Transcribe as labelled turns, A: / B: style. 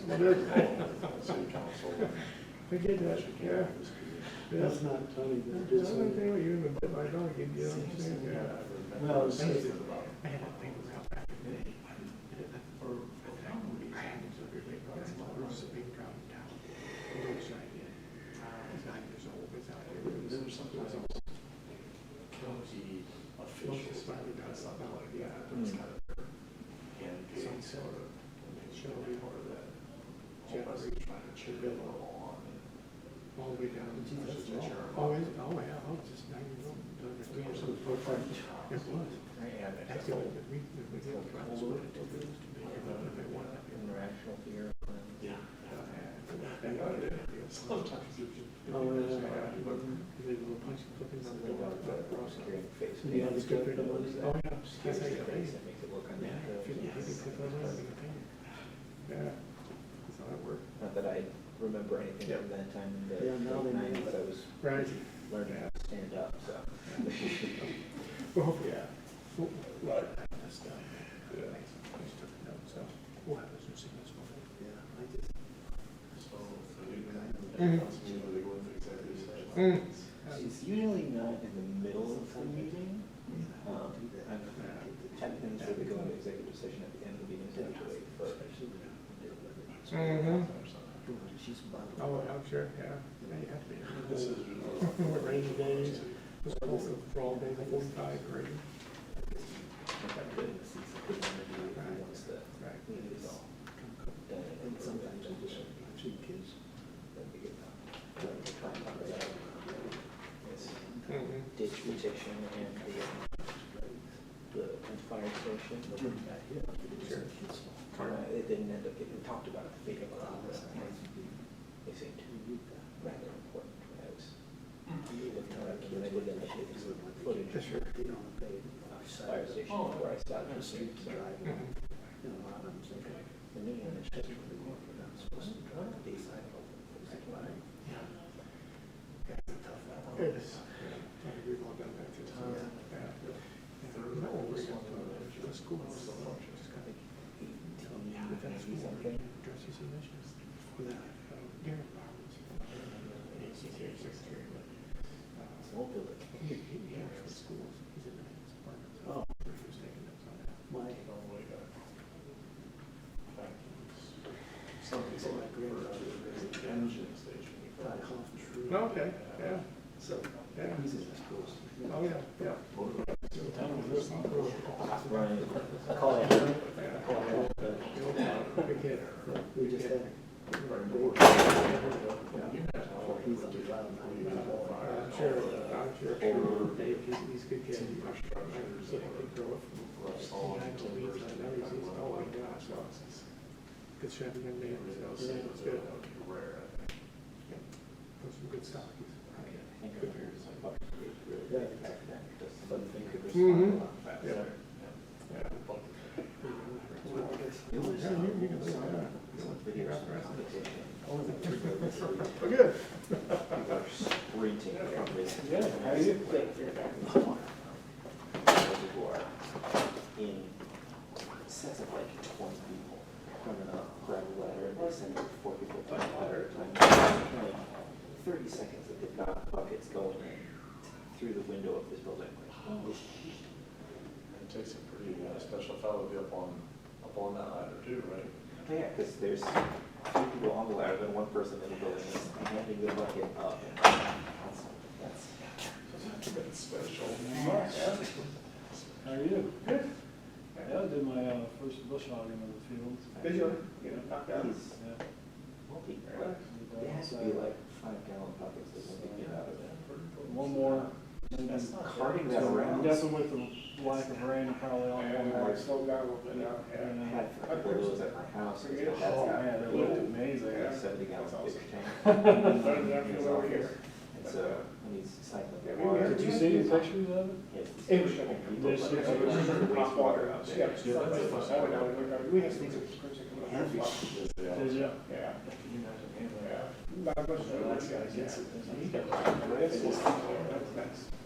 A: We
B: That's
A: did.
B: involved, city council.
A: We did that, yeah. That's
C: not Tony
A: the
C: that did
A: only
C: something.
A: thing we even bit my donkey, you know what I'm saying? Yeah.
C: Well, it's-
A: I had a thing about that. I had it, so everybody brought it, it was a big problem down. the roadside, yeah. I was nine years old, it's out here. It was- it was all
B: County
A: Officials finally got us up out of the island.
B: It's kind of hand paid
A: Some sort
B: sort of,
A: of
B: and they
A: show
B: should be part of that. Whole bunch
A: generation
B: of trying to cheer it all on. and
A: the way down.
B: Gee, that's long.
A: Oh, is, it? oh, yeah, I was just nine years old. It was. It was.
B: And they
A: That's
B: have
A: the
B: all
A: only good reason that we did it. That was what it took us to be able to make one of it.
D: International beer.
B: Yeah.
A: And I did it.
B: Sometimes you should.
C: Oh, yeah.
A: They were punching cookies on the door.
D: Prosecuting face.
C: Yeah, it's good for those
A: Oh, yeah. Yes, I got it.
D: That makes it look
A: Yeah, if you- if you put those on, you can paint
D: unnatural.
A: it. Yeah, that's how it worked.
D: Not that I remember anything from that time in the
C: Yeah, now they
D: late
C: make-
D: nineties, but I was
A: Right.
D: learning how to stand up, so.
A: Well, yeah. Well, Right. That's done. Yeah. I just took a note, so we'll have this missing this one. Yeah, I just.
B: So, so you
A: Mhm.
B: can, that's usually they go into executive session.
A: Mm.
D: She's usually not in the middle of the meeting. Um,
A: Yeah.
D: I'm happy to say we go into executive session at the end of the meeting, so I have to wait for.
A: Mhm.
D: She's
A: Oh, I'm sure, yeah. Yeah, you have to be.
B: This is.
A: What rainy days, was also for all day, forty-five grade.
D: Once the
A: Right.
D: meeting is all done. And sometimes I just, two kids. That'd be good. It's
A: Mhm.
D: ditch petition and the, the fire station.
E: Mm-hmm.
A: Sure.
D: Uh, It didn't end up getting talked about at the meeting,
E: Ah,
D: but they seemed rather important when I was. When I did the initiative footage
A: Yes, sure.
D: of the fire station where I saw the street drive.
A: Mhm.
D: The new initiative I'm supposed to drive the design of
A: It is. I think we've all done that to times. Yeah. And no, we got the, the school was so much, it's kind of. But that's
D: Eighteen,
A: school,
D: something.
A: dresses and issues. Without, uh, Gary Roberts. He's here, he's here, but, uh,
D: Small building.
A: He, he, he works for schools, he's in the department.
D: Oh.
A: He was taking notes on that.
C: My,
B: Some people like for engine station.
C: Todd Hoffman,
A: No, Okay, yeah,
C: so,
A: yeah.
C: he's in the schools.
A: Oh, yeah, yeah.
D: Right. Call it.
A: Yeah.
D: Call it. uh,
A: Big hit.
C: We just had, he's on the wild
A: Uh,
C: nine.
A: I'm sure, I'm sure, sure, Dave, he's, he's a good kid. I'm sure he could grow up from nine to eight, so now he's, he's, oh my gosh, so it's- good shot, young man, so, yeah, it's good. Yeah. Those are good stuff. Good parents.
D: Yeah, exactly. But you could
A: Mhm.
D: respond a lot faster.
A: Yeah. Yeah.
D: It was,
A: Yeah,
D: um,
A: you- you can say that.
D: some video competition.
A: Well, good.
D: People are sprinting from this.
B: Yeah, how you?
D: People are in sets of like twenty people coming up, grab a ladder, and they send like four people down a ladder at a time. Like Thirty seconds that they've got buckets going in through the window of this building, like, oh,
B: It takes a pretty uh, special fellow to be up on, up on that ladder too, right?
D: Yeah, because there's two people on the ladder, then one person in the building is handing the bucket up. That's- that's-
B: That's special.
E: How are you? Good. Yeah, I did my uh, first bush hogging in the field.
A: Good job. You know, knocked out.
D: He's
E: Yeah.
D: multi- like, It has to be like five gallon buckets that one can get out of there.
E: One more. and then-
D: That's not carting that around.
E: I'm guessing with the lack of rain, probably all one more.
D: I
E: And, uh,
D: had a couple of those at my house. 'cause it
E: Oh,
D: had
E: man, it looked amazing.
D: that
E: Yeah,
D: Seventy gallon big tank. in his office. And so, when he's
A: Yeah,
D: cycling
A: we-
D: the water.
E: Did you see any pictures of it?
D: Yes.
A: It
D: People like
E: Yes,
D: that.
E: it was
D: Wastewater out there.
E: Did you?
A: Yeah.
B: That's nice.